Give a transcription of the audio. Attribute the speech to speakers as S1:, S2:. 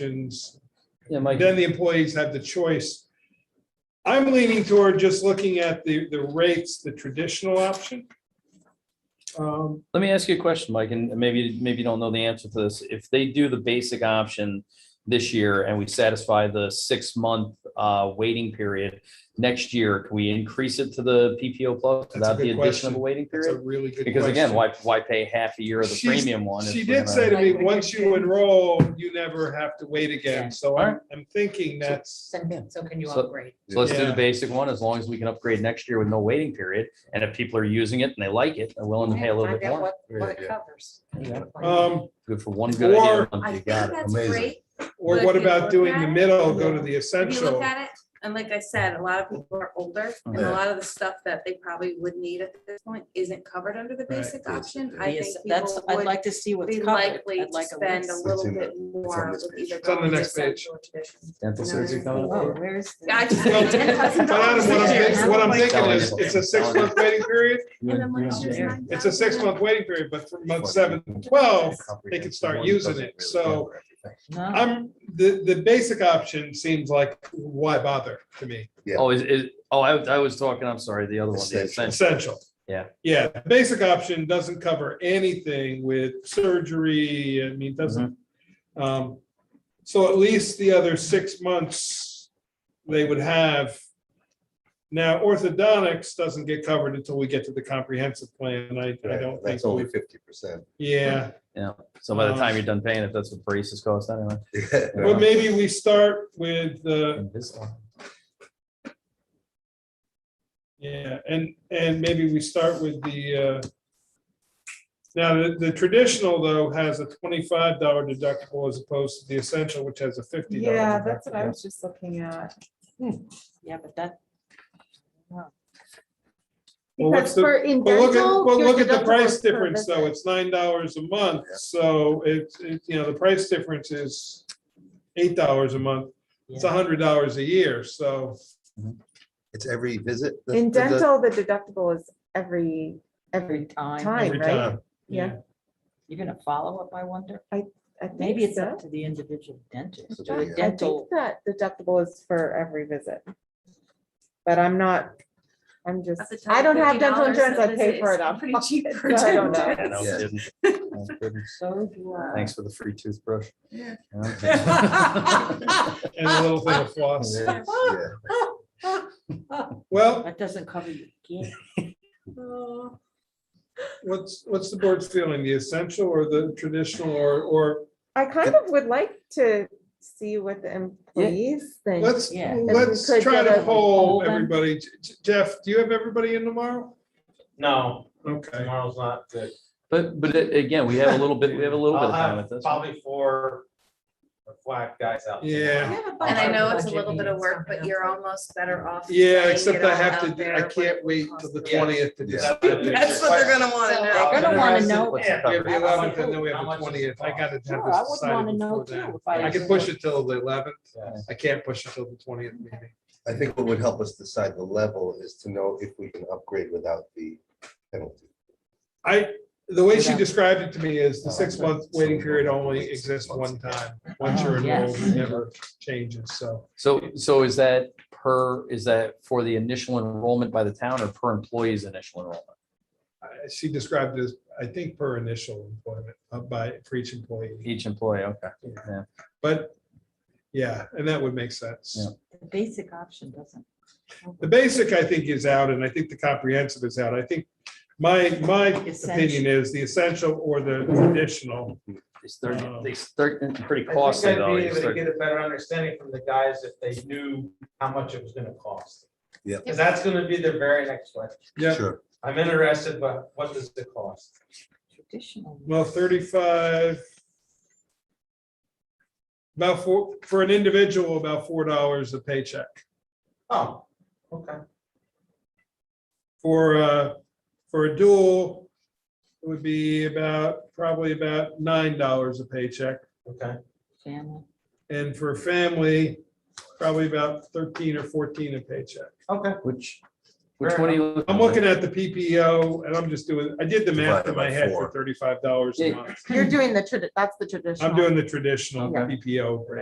S1: options.
S2: Yeah, Mike,
S1: Then the employees have the choice. I'm leaning toward just looking at the, the rates, the traditional option. Um,
S2: let me ask you a question, Mike, and maybe, maybe you don't know the answer to this. If they do the basic option this year and we satisfy the six-month uh, waiting period next year, can we increase it to the PPO plus
S1: That's a
S2: without the
S1: good
S2: addition of a
S1: question.
S2: waiting
S1: It's a
S2: period?
S1: really good
S2: Because again,
S1: question.
S2: why, why pay half a year of the
S1: She's-
S2: premium one? if
S1: She
S2: we're
S1: did
S2: gonna-
S1: say to me, once you enroll, you never have to wait again. So I'm,
S2: Alright.
S1: I'm thinking that's,
S3: Then- So can you
S2: So-
S3: upgrade?
S2: So let's do
S1: Yeah.
S2: the basic one, as long as we can upgrade next year with no waiting period. And if people are using it and they like it, they're willing to pay a little
S3: Find
S2: bit
S3: out
S2: more.
S3: what- What it covers.
S2: Yeah.
S1: um,
S2: Good for one good idea.
S1: Or-
S2: a month,
S4: I
S2: you
S4: think
S2: got it.
S4: that's
S5: Amazing.
S4: great.
S1: or
S4: But
S1: what
S4: if you
S1: about
S4: look
S1: doing
S4: at
S1: the
S4: it-
S1: middle, go to the
S4: If you look
S1: essential?
S4: at it, and like I said, a lot of people are older and a
S5: Yeah.
S4: lot of the stuff that they probably would need at this point isn't covered under the
S1: Right.
S4: basic
S5: Yes,
S4: option.
S5: it
S4: I
S3: Yes,
S4: think
S3: that's,
S4: people
S3: I'd
S4: would
S3: like to see what's
S4: be
S3: covered.
S4: likely
S3: I'd
S4: to
S3: like a
S4: spend a
S3: list.
S5: It's
S4: little
S5: in the-
S4: bit more
S5: this
S4: with
S5: page.
S4: either.
S1: It's on the
S4: going to
S1: next page.
S4: central tradition.
S2: Dental
S4: No,
S2: surgery
S4: it's-
S2: coming up.
S3: Oh, where's? the-
S4: Yeah, I just-
S1: Well,
S4: $10,000
S1: But Adam, what I'm
S4: this
S1: thinking,
S4: year.
S1: what I'm thinking is,
S2: Selling it.
S1: it's a six-month waiting period.
S2: You
S4: And then
S2: and-
S4: when
S2: you
S4: it's
S2: and
S4: just
S2: Jerry.
S4: nine
S1: It's a
S4: thousand,
S1: six-month waiting period, but from month seven, to twelve, they can start using it. So
S3: No,
S1: I'm, the, the basic option seems like, why bother to me?
S5: Yeah.
S2: Oh, is, is, oh, I, was- I was talking, I'm sorry, the other one. the
S5: Essential.
S2: essential.
S1: Essential.
S2: Yeah.
S1: Yeah, the basic option doesn't cover anything with surgery, I mean, doesn't. um, So at least the other six months they would have. Now, orthodontics doesn't get covered until we get to the comprehensive plan, I, I don't think,
S5: That's only
S1: we-
S5: fifty percent.
S1: yeah.
S2: So by the time you're
S6: Um,
S2: done paying, if that's what braces cost anyway.
S6: uh,
S1: But maybe we start with the
S2: then this one.
S1: Yeah, and, and maybe we start with the, uh, now, the, the traditional though has a twenty-five dollar deductible as opposed to the essential, which has a fifty dollar.
S7: Yeah, that's what I was just looking at.
S1: Hmm.
S3: yeah, but that,
S1: Well, what's
S7: Because
S1: the,
S7: for in
S1: but look at,
S7: dental,
S1: but
S7: your
S1: look at the
S7: deductible
S1: price
S7: is per
S1: difference though,
S7: visit.
S1: it's nine dollars a month,
S5: Yeah.
S1: so it's, it, you know, the price difference is eight dollars a month, it's a hundred dollars a year, so.
S5: It's every visit. the-
S7: In
S5: the- the-
S7: dental, the deductible is every, every
S3: every time,
S7: Time.
S1: every
S7: right?
S1: time.
S7: Yeah.
S3: you're gonna follow up, I wonder?
S7: I think
S3: Maybe it's
S7: so.
S3: up to the individual dentist.
S5: So
S3: or
S5: the, uh,
S7: I think
S3: Dental,
S7: that deductible is for every visit. But I'm not, I'm just,
S4: At the time,
S7: I don't have dental
S4: $50
S7: insurance, I
S4: is-
S7: pay for
S4: is
S7: it. out of
S4: pretty
S7: pocket,
S4: cheap for
S7: so I don't
S4: dental.
S7: know.
S2: Yeah, no
S5: Yeah.
S2: kidding. No kidding.
S3: so do I.
S2: Oh, Thanks for the free toothbrush.
S5: Yeah.
S2: Yeah.
S1: And a little thing of floss,
S2: Yeah.
S5: yeah.
S1: well,
S3: That doesn't cover your kid.
S1: What's, what's the board's feeling, the essential or the traditional or, or,
S7: I kind of would like to see what the employees think.
S1: let's,
S3: Yeah.
S1: let's
S7: If we could
S1: try
S7: get
S1: to
S7: a
S1: poll
S3: poll then.
S1: everybody. J- J- Jeff, do you have everybody in tomorrow?
S6: No,
S1: Okay,
S6: tomorrow's not good.
S2: But, but a- again, we have a little bit, we have a little bit
S6: I'll
S2: of time with
S6: have
S2: this.
S6: probably four or five guys out.
S1: Yeah.
S4: And I know it's a
S3: Budget
S4: little bit of
S3: meetings
S4: work, but
S3: coming
S4: you're
S3: up.
S4: almost better off.
S1: yeah,
S4: getting
S1: except
S4: it
S1: I
S4: all
S1: have
S4: out
S1: to,
S4: there
S1: I
S4: what
S1: can't
S4: it
S1: wait
S4: costs.
S1: till the
S6: Yeah.
S1: twentieth to
S5: Yeah.
S1: decide.
S4: That's what they're gonna wanna know.
S3: They're gonna wanna know.
S2: What's
S1: We have
S2: covered?
S1: the eleventh and then we
S6: How
S1: have the
S6: much does it
S1: twentieth. I
S6: cost?
S1: gotta have this
S3: Sure, I would wanna
S1: decided
S3: know
S1: before
S3: too.
S1: that.
S3: if I
S1: I can
S3: was-
S1: push it till the eleventh.
S6: Yes.
S1: I can't push it till the twentieth meeting.
S5: I think what would help us decide the level is to know if we can upgrade without the penalty.
S1: I, the way she
S3: Yeah.
S1: described it to me is the six month waiting period only exists one time. Once you're
S3: Oh, yes.
S1: enrolled, it never changes, so.
S2: So, so is that per, is that for the initial enrollment by the town or per employee's initial enrollment?
S1: I- She described it as, I think, per initial employment uh, by, for each employee.
S2: Each employee, okay.
S1: But, yeah, and that would make sense.
S2: Yeah.
S3: The basic option doesn't.
S1: The basic, I think, is out, and I think the comprehensive is out. I think my, my opinion is the essential or the traditional.
S2: It's thirty,
S1: Um,
S2: it's thirty, pretty
S6: I
S2: costly
S6: think
S2: though.
S6: I'd be
S2: It's
S6: able to
S2: 30.
S6: get a better understanding from the guys if they knew how much it was gonna cost.
S5: Yeah.
S6: Because that's gonna be the very next question.
S1: Yeah,
S5: Sure.
S6: I'm interested, but what does it cost?
S3: Traditional.
S1: well, thirty-five. About four, for an individual, about four dollars a paycheck.
S6: Oh, okay.
S1: For, uh, for a dual, it would be about, probably about nine dollars a paycheck.
S6: Okay.
S3: Family.
S1: And for family, probably about thirteen or fourteen a paycheck.
S6: Okay.
S2: Which, Which one are you? looking
S1: I'm
S2: at?
S1: looking at the PPO and I'm just doing, I did the math in my
S5: Divided by
S1: head for
S5: four.
S1: thirty-five dollars a
S2: Yeah.
S1: month.
S7: You're doing the, tradi- that's the traditional.
S1: I'm doing the traditional
S2: Okay.
S1: PPO rate.